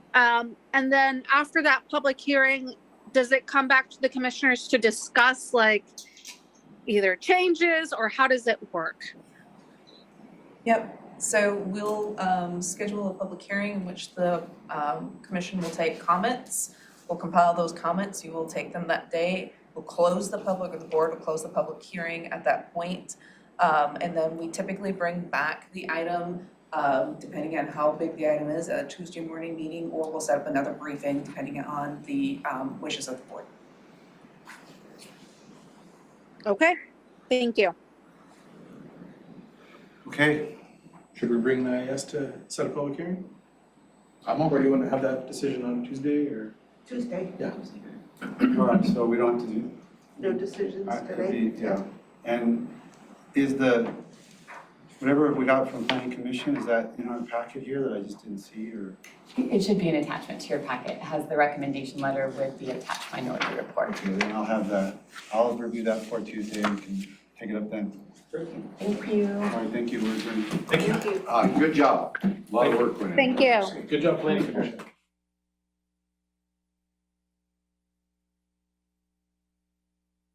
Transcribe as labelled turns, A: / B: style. A: Um, and then after that public hearing, does it come back to the commissioners to discuss like either changes or how does it work?
B: Yep, so we'll um schedule a public hearing in which the um commission will take comments. We'll compile those comments, you will take them that day, we'll close the public, or the board will close the public hearing at that point. Um and then we typically bring back the item, um depending on how big the item is, a Tuesday morning meeting, or we'll set up another briefing depending on the um wishes of the board.
A: Okay, thank you.
C: Okay, should we bring the IS to set a public hearing?
D: I'm
C: Or do
D: okay.
C: you wanna have that decision on Tuesday or?
E: Tuesday.
C: Yeah.
D: All right, so we don't have to do,
E: No decisions
D: I- it'd
E: today.
D: be- yeah. And is the, whatever we got from planning commission, is that in our packet here that I just didn't see or?
F: It should be an attachment to your packet, it has the recommendation letter with the attached minority report.
D: Okay, then I'll have that, I'll review that for Tuesday and we can take it up then.
F: Thank you.
D: All right, thank you, we're adjourned.
C: Thank you.
G: Uh, good job. A Lot of work went in.
A: Thank you.
C: Good job, planning commission.